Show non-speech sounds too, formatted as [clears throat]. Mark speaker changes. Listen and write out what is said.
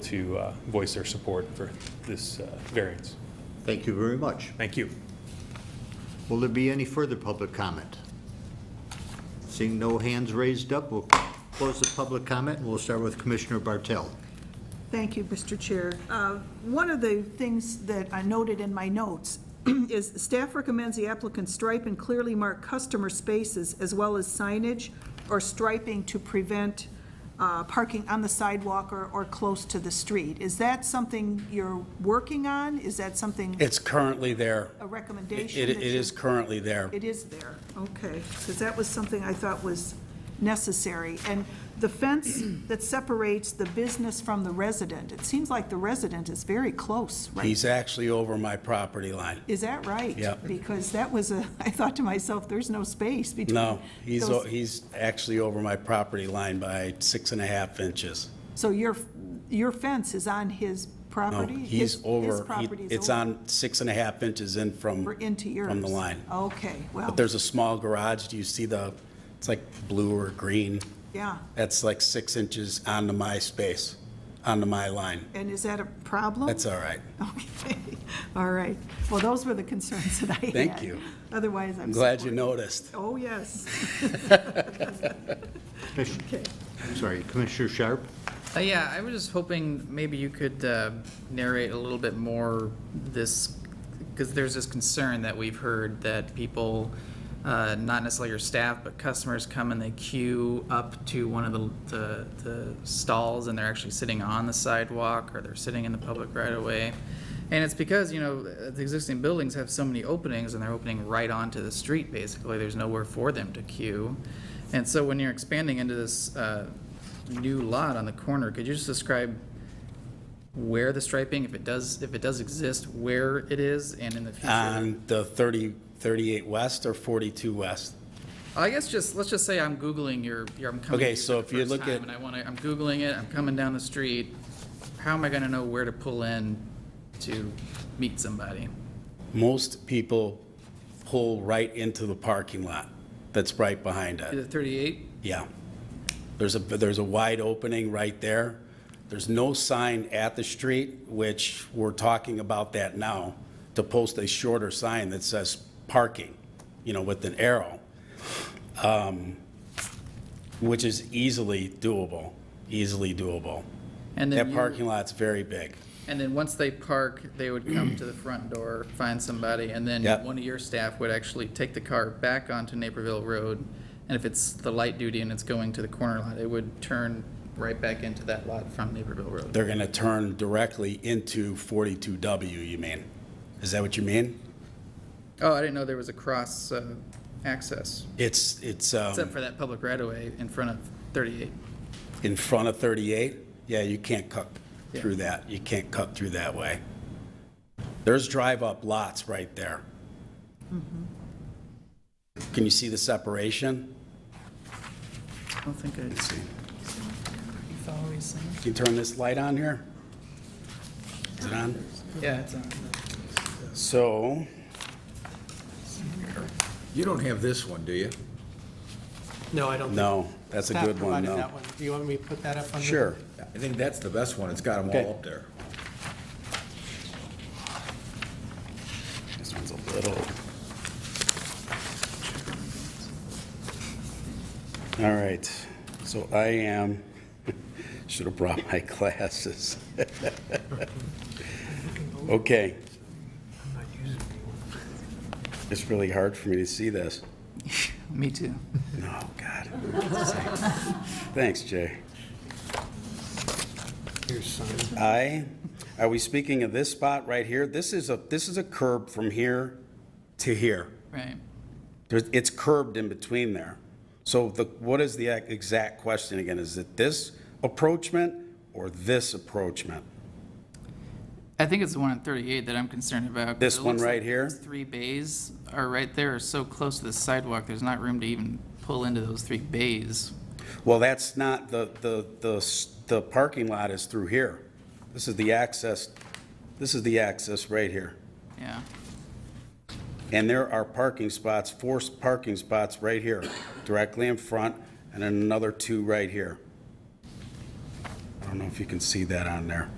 Speaker 1: to uh, voice their support for this uh, variance.
Speaker 2: Thank you very much.
Speaker 1: Thank you.
Speaker 2: Will there be any further public comment? Seeing no hands raised up, we'll close the public comment, and we'll start with Commissioner Bartell.
Speaker 3: Thank you, Mr. Chair. Uh, One of the things that I noted in my notes [clears throat] is staff recommends the applicant stripe and clearly mark customer spaces as well as signage or striping to prevent uh, parking on the sidewalk or, or close to the street. Is that something you're working on? Is that something,
Speaker 4: It's currently there.
Speaker 3: a
Speaker 4: It
Speaker 3: recommendation?
Speaker 4: it
Speaker 3: that
Speaker 4: is
Speaker 3: you're-
Speaker 4: currently there.
Speaker 3: It is there, okay, because that was something I thought was necessary. And the
Speaker 4: [clears throat]
Speaker 3: fence that separates the business from the resident, it seems like the resident is very close, right?
Speaker 4: He's actually over my property line.
Speaker 3: Is that right?
Speaker 4: Yeah.
Speaker 3: Because that was a, [laughs] I thought to myself, there's no space between.
Speaker 4: No, he's, o-
Speaker 3: those-
Speaker 4: he's actually over my property line by six and a half inches.
Speaker 3: So your, your fence is on his
Speaker 4: No,
Speaker 3: property? His-
Speaker 4: he's over.
Speaker 3: His
Speaker 4: he-
Speaker 3: property is over.
Speaker 4: It's on six and a half inches in from.
Speaker 3: Or into yours? Oh,
Speaker 4: From the line.
Speaker 3: Okay, well.
Speaker 4: But there's a small garage. Do you see the, it's like blue or green?
Speaker 3: Yeah,
Speaker 4: That's like six inches onto my space, onto my line.
Speaker 3: and is that a problem?
Speaker 4: That's all right.
Speaker 3: Okay, all right. Well, those were the concerns that I had.
Speaker 4: Thank you.
Speaker 3: Otherwise, I'm.
Speaker 4: I'm glad you
Speaker 3: supportive.
Speaker 4: noticed.
Speaker 3: Oh, yes.
Speaker 2: Commissioner- Sorry, Commissioner Sharp?
Speaker 5: Uh, Yeah, I was just hoping maybe you could uh, narrate a little bit more this, because there's this concern that we've heard that people, uh, not necessarily your staff, but customers come and they queue up to one of the- the the stalls and they're actually sitting on the sidewalk or they're sitting in the public right of way. And it's because, you know, the existing buildings have so many openings and they're opening right onto the street, basically. There's nowhere for them to queue. And so when you're expanding into this uh, new lot on the corner, could you just describe where the striping, if it does, if it does exist, where it is and in the future?
Speaker 4: On the 30, 38 west or 42 west?
Speaker 5: I guess just, let's just say I'm Googling your, your, I'm coming
Speaker 4: Okay,
Speaker 5: to you
Speaker 4: so
Speaker 5: for
Speaker 4: if
Speaker 5: the
Speaker 4: you
Speaker 5: first
Speaker 4: look
Speaker 5: time
Speaker 4: at-
Speaker 5: And I wanna, I'm Googling it, I'm coming down the street. How am I gonna know where to pull in to meet somebody?
Speaker 4: Most people pull right into the parking lot that's right behind
Speaker 5: Is
Speaker 4: it.
Speaker 5: it 38?
Speaker 4: Yeah. There's a, there's a wide opening right there. There's no sign at the street, which we're talking about that now, to post a shorter sign that says parking, you know, with an arrow, um, which is easily doable, easily doable.
Speaker 5: And then
Speaker 4: That
Speaker 5: you-
Speaker 4: parking lot's very big.
Speaker 5: And then once they park, they would come to the front door, find somebody, and then
Speaker 4: Yep.
Speaker 5: one of your staff would actually take the car back onto Naperville Road. And if it's the light duty and it's going to the corner lot, it would turn right back into that lot from Naperville Road.
Speaker 4: They're going to turn directly into 42W, you mean? Is that what you mean?
Speaker 5: Oh, I didn't know there was a cross uh, access,
Speaker 4: It's, it's um,
Speaker 5: except for that public right of way in front of 38.
Speaker 4: in front of 38? Yeah, you can't cut
Speaker 5: Yeah.
Speaker 4: through that. You can't cut through that way. There's drive-up lots right there. Can you see the separation?
Speaker 5: I don't think I
Speaker 4: Let's see.
Speaker 5: follow these things.
Speaker 4: Can you turn this light on here? Is it on?
Speaker 5: Yeah, it's on.
Speaker 4: So,
Speaker 6: You don't have this one, do you?
Speaker 7: No, I don't. think-
Speaker 4: no, that's a
Speaker 7: Staff
Speaker 4: good one,
Speaker 7: provided
Speaker 4: no.
Speaker 7: that one. Do you want me to put that up on? the-
Speaker 4: Sure.
Speaker 6: I think that's the best one. It's got them
Speaker 4: Okay.
Speaker 6: all up there.
Speaker 4: This one's a little. All right, so I am, [laughs] should have brought my [laughs] glasses. Okay. It's really hard for me to see this.
Speaker 5: Me too.
Speaker 4: No, Oh, God. Thanks, Jay. I, are we speaking of this spot right here? This is a, this is a curb from here to here.
Speaker 5: Right.
Speaker 4: There's, it's curbed in between there. So the, what is the ac- exact question again? Is it this approachment or this approachment?
Speaker 5: I think it's the one on 38 that I'm concerned about. 'cause
Speaker 4: This
Speaker 5: it
Speaker 4: one
Speaker 5: looks
Speaker 4: right
Speaker 5: like
Speaker 4: here?
Speaker 5: those Three bays are right there, are so close to the sidewalk, there's not room to even pull into those three bays.
Speaker 4: Well, that's not, the, the, the, s- the parking lot is through here. This is the access, this is the access right here.
Speaker 5: Yeah,
Speaker 4: And there are parking spots, four s- parking spots right here, directly in front, and then another two right here. I don't don't know if you can see that on there.